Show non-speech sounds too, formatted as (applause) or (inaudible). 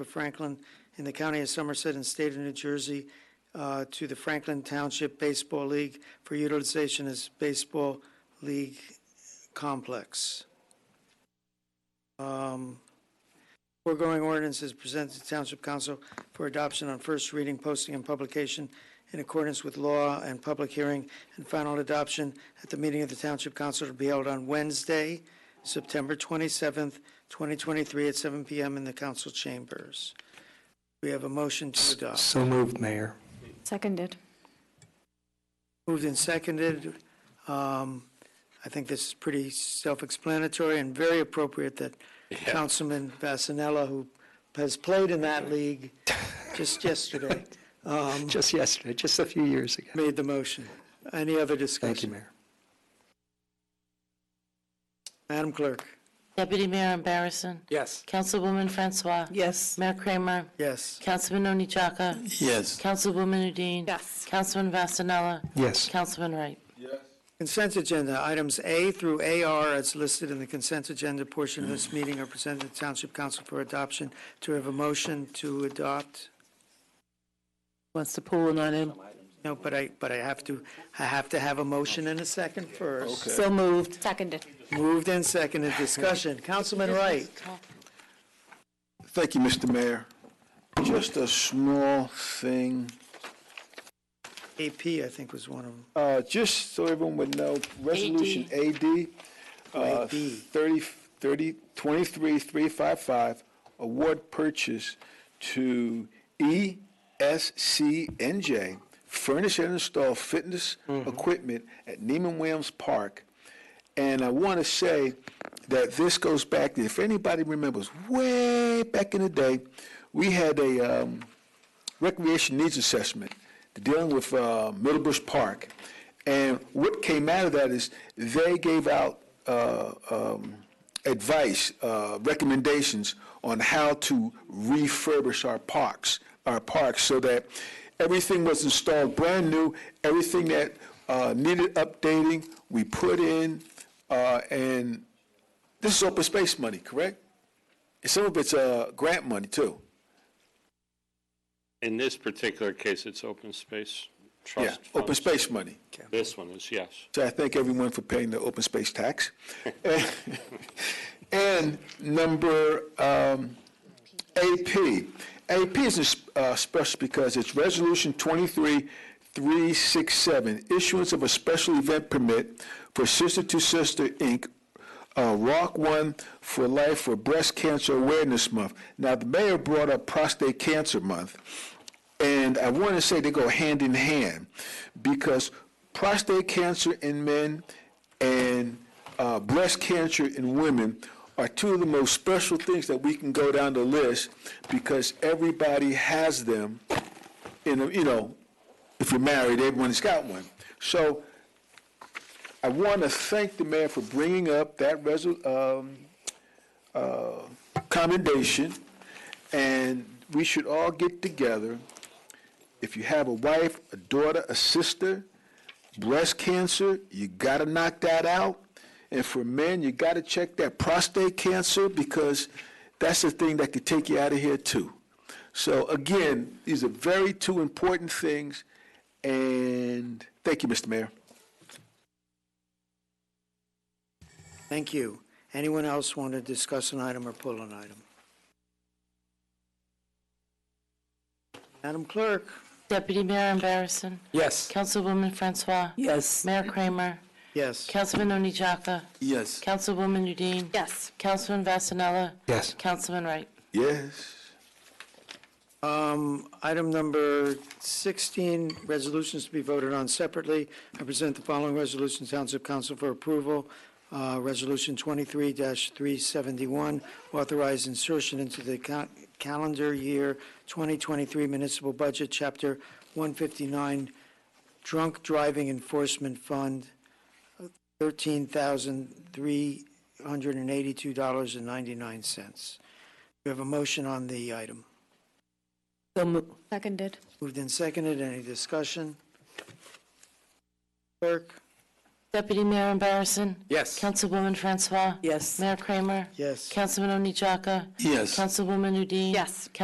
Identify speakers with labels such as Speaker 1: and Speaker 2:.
Speaker 1: of Franklin in the county of Somerset and state of New Jersey uh, to the Franklin Township Baseball League for utilization as baseball league complex. Um, Foregoing ordinance is presented to Township Council for adoption on first reading, posting, and publication in accordance with law and public hearing and final adoption at the meeting of the Township Council to be held on Wednesday, September 27th, 2023, at 7 PM in the council chambers. We have a motion to adopt.
Speaker 2: So moved, Mayor.
Speaker 3: Seconded.
Speaker 1: Moved and seconded. Um, I think this is pretty self-explanatory and very appropriate that Councilman Vasanella, who has played in that league
Speaker 2: (laughs)
Speaker 1: just yesterday, um,
Speaker 2: Just yesterday, just a few years ago.
Speaker 1: made the motion. Any other
Speaker 2: Thank you,
Speaker 1: discussion?
Speaker 2: Mayor.
Speaker 1: Madam Clerk?
Speaker 4: Deputy Mayor Barrison.
Speaker 2: Yes.
Speaker 4: Councilwoman Francois.
Speaker 5: Yes.
Speaker 4: Mayor Kramer.
Speaker 1: Yes.
Speaker 4: Councilman Oni Chaka.
Speaker 6: Yes.
Speaker 4: Councilwoman Udine.
Speaker 5: Yes.
Speaker 4: Councilman Vasanella.
Speaker 2: Yes.
Speaker 4: Councilman Wright.
Speaker 1: Consent agenda, items A through AR as listed in the consent agenda portion of
Speaker 2: Mm.
Speaker 1: this meeting are presented to Township Council for adoption. Do we have a motion to adopt?
Speaker 5: Wants to pull an item.
Speaker 1: No, but I, but I have to, I have to have a motion and a second first.
Speaker 5: So moved.
Speaker 3: Seconded.
Speaker 1: Moved and (laughs) seconded, discussion. Councilman Wright?
Speaker 6: Thank you, Mr. Mayor. Just a small thing,
Speaker 1: AP, I think was one of them.
Speaker 6: uh, just so everyone would know, Resolution AD, uh,
Speaker 1: AD.
Speaker 6: 30, 30, 23,355, award purchase to E ESCNJ, furnish and install fitness equipment at Neiman Williams Park. And I want to say that this goes back, if anybody remembers, way back in the day, we had a, um, recreation needs assessment dealing with uh, Middlebush Park. And what came out of that is they gave out uh, um, advice, uh, recommendations on how to refurbish our parks, our parks, so that everything was installed brand new, everything that uh, needed updating, we put in, uh, and this is open space money, correct? Some of it's uh, grant money, too.
Speaker 7: In this particular case, it's open space
Speaker 6: Yeah,
Speaker 7: trust.
Speaker 6: open
Speaker 7: funds.
Speaker 6: space money.
Speaker 7: This one is, yes.
Speaker 6: So I thank everyone for paying the open space tax. And number um, AP. AP is uh, special because it's Resolution 23367, issuance of a special event permit for Sister to Sister, Inc., uh, Rock One for Life for Breast Cancer Awareness Month. Now, the mayor brought up Prostate Cancer Month, and I want to say they go hand in hand because prostate cancer in men and uh, breast cancer in women are two of the most special things that we can go down the list because everybody has them. In a, you know, if you're married, everyone's got one. So I want to thank the mayor for bringing up that resol, um, uh, commendation, and we should all get together. If you have a wife, a daughter, a sister, breast cancer, you gotta knock that out. And for men, you gotta check that prostate cancer because that's the thing that could take you out of here too. So again, these are very two important things, and thank you, Mr. Mayor.
Speaker 1: Thank you. Anyone else want to discuss an item or pull an item? Madam Clerk?
Speaker 4: Deputy Mayor Barrison.
Speaker 2: Yes.
Speaker 4: Councilwoman Francois.
Speaker 5: Yes.
Speaker 4: Mayor Kramer.
Speaker 1: Yes.
Speaker 4: Councilman Oni Chaka.
Speaker 6: Yes.
Speaker 4: Councilwoman Udine.
Speaker 3: Yes.
Speaker 4: Councilman Vasanella.
Speaker 2: Yes.
Speaker 4: Councilman Wright.
Speaker 6: Yes.
Speaker 1: Um, Item number 16, resolutions to be voted on separately. I present the following resolution to Township Council for approval. Uh, Resolution 23-371, authorize insertion into the ca- calendar year 2023 municipal budget, Chapter 159, Drunk Driving Enforcement Fund, $13,382.99. We have a motion on the item.
Speaker 5: So moved.
Speaker 3: Seconded.
Speaker 1: Moved and seconded, any discussion? Clerk?
Speaker 4: Deputy Mayor Barrison.
Speaker 2: Yes.
Speaker 4: Councilwoman Francois.
Speaker 5: Yes.
Speaker 4: Mayor Kramer.
Speaker 1: Yes.
Speaker 4: Councilman Oni Chaka.
Speaker 6: Yes.
Speaker 4: Councilwoman Udine.
Speaker 3: Yes.